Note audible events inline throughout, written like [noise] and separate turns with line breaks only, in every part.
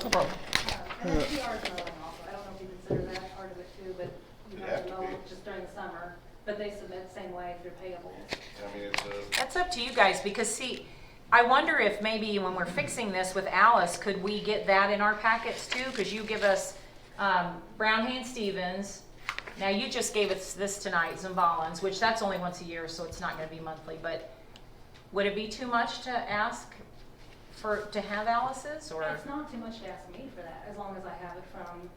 the problem.
And then PR is another one also, I don't know if you consider that part of it too, but you
It'd
have to
have to
mow
be.
just during the summer, but they submit same way if they're payable.
I mean, it's a,
That's up to you guys, because see, I wonder if maybe when we're fixing this with Alice, could we get that in our packets too? Because you give us um, Brown Hand Stevens, now you just gave us this tonight, Zimbalans, which that's only once a year, so it's not gonna be monthly, but would it be too much to ask for, to have Alice's, or?
It's not too much to ask me for that, as long as I have it from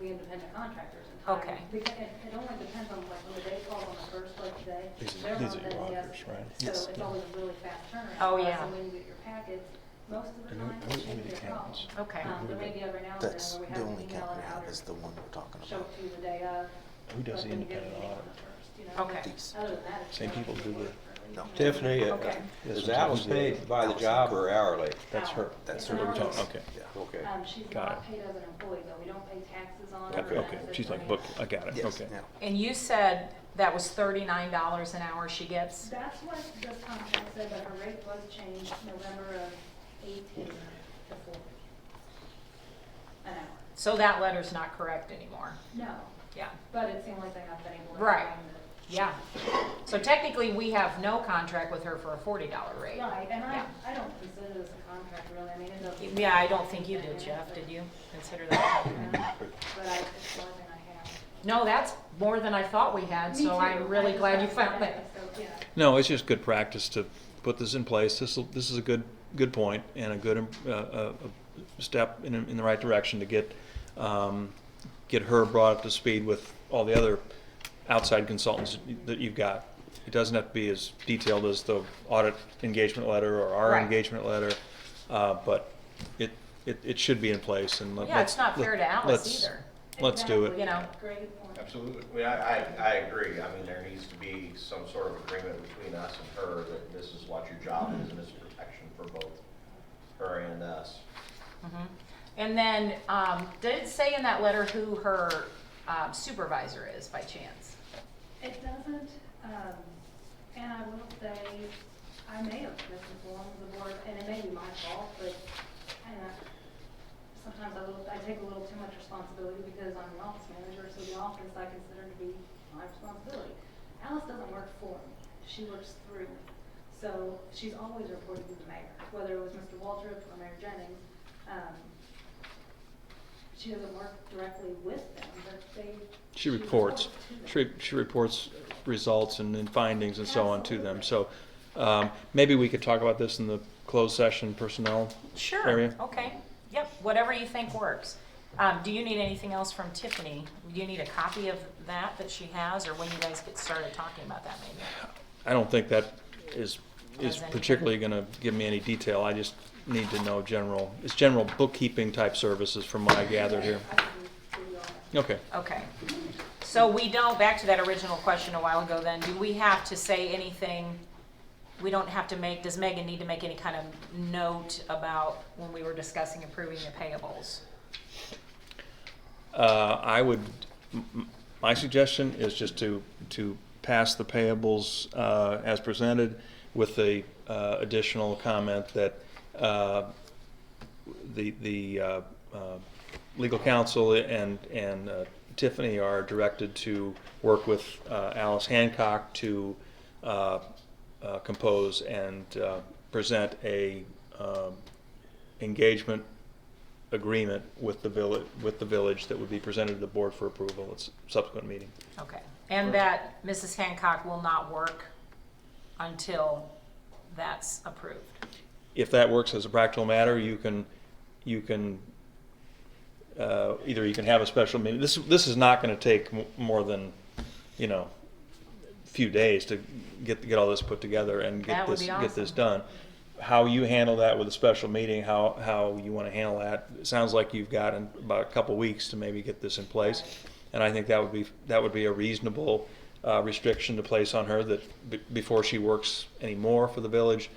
the independent contractors in time.
Okay.
Because it, it only depends on like when the day calls on the first, like today.
These are-
they're
these
on
are
the
your
yes,
orders, right? Yes.
So it's always a really fast turnaround.
Oh,
for us,
yeah.
And when you get your packets, most of the
And who-
time, it
who- who are
shouldn't
the
be a problem.
accountants?
Okay.
Um, there may be every now and then
That's
where we
the
have to
only
email
account
it
we
out
have
or
is the one we're talking
Show it
about.
to you the day of.
Who does
but when you get
independent
the meeting on
audit?
the first, you know,
Okay.
but Other than that. it's
Same
not
people
really
do the-
worth it.
No.
Tiffany, uh,
Okay.
This
is
is
Alice
usually
paid by the
Alice.
job or hourly?
That's her,
Hourly.
that's
It's
her,
an
we're talking,
hourly.
okay. Yeah.
Okay.
Um, she's
Got
not
it.
paid as an employee though, we don't pay taxes on her.
Got it, okay,
benefits
she's
or
like,
anything.
book, I got it,
Yes,
okay.
yeah.
And you said that was thirty-nine dollars an hour she gets?
That's what this contract said, but her rate was changed November of eighteen to forty. An hour,
So that letter's not correct anymore,
no,
yeah.
but it seemed like they have been able to.
Right.
find the-
Yeah, so technically, we have no contract with her for a forty dollar rate.
Right, and I,
Yeah.
I don't consider this a contract really, I mean, it doesn't.
Yeah, I don't think you did, Jeff, did you consider that?
No, But I, it's one thing I have.
No, that's more than I thought we had,
Me
so I'm
too.
really
I
glad you
just have
found
to
that.
ask, so, yeah.
No, it's just good practice to put this in place. This, will- this is a good, good point and a good, uh, uh, a step in, in the right direction to get, um, get her brought up to speed with all the other outside consultants that you've got. It doesn't have to be as detailed as the audit engagement letter or our
Right.
engagement letter, uh, but it, it, it should be in place and let-
Yeah, it's not
let's.
fair to Alice
let's-
either.
Let's do
Exactly,
You
it.
know.
Great point.
absolutely. Well, I, I, I agree. I mean, there needs to be some sort of agreement between us and her that this is what your job is and it's protection for both her and us.
Mhm. And then, um, did it say in that letter who her um, supervisor is by chance?
It doesn't, um, and I will say, I may have misinformed the board, and it may be my fault, but, and I, sometimes I will, I take a little too much responsibility because I'm an office manager, so the office I consider to be my responsibility. Alice doesn't work for me, she works through me, so she's always reported to the mayor, whether it was Mr. Waltrip or Mayor Jennings. Um, she doesn't work directly with them, but they.
She reports,
to them.
she, she reports results and then findings and so on to them, so, um, maybe we could talk about this in the closed session personnel
Sure,
area.
okay, yep, whatever you think works. Um, do you need anything else from Tiffany? Do you need a copy of that that she has, or when you guys get started talking about that maybe?
I don't think that is, is
Does any-
particularly gonna give me any detail, I just need to know general, it's general bookkeeping type services from what I gathered here.
I can do all that.
Okay,
Okay. So we don't, back to that original question a while ago then, do we have to say anything? We don't have to make, does Megan need to make any kind of note about when we were discussing approving the payables?
uh, I would, m- m- my suggestion is just to, to pass the payables, uh, as presented with the, uh, additional comment that, uh, the, the uh, uh, legal counsel and, and uh, Tiffany are directed to work with uh, Alice Hancock to uh, uh, compose and uh, present a um, engagement agreement with the village, with the village that would be presented to the board for approval at s- subsequent meeting.
Okay. And that Mrs. Hancock will not work until that's approved?
if that works as a practical matter, you can, you can, uh, either you can have a special meeting. This, this is not gonna take m- more than, you know, few days to get, get all this put together and
That
get
would
this,
be
get this
awesome.
done. How you handle that with a special meeting, how, how you wanna handle that, it sounds like you've got in about a couple weeks to maybe get this in place. And I think that would be, that would be a reasonable, uh, restriction to place on her that b- before she works anymore for the village,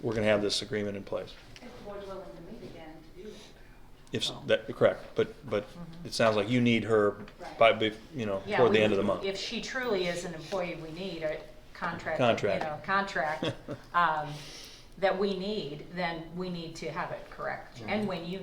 we're gonna have this agreement in place.
If the board's willing to meet again to do that.
If,
Oh.
s- that, correct, but, but it sounds like you need her by, bef- you know,
Yeah,
toward the
we-
end of the month.
If she truly is an employee we need, a contract, you
Contract.
know,
[laughs] Mm-hmm.
contract, um, that we need, then we need to have it correct. And when you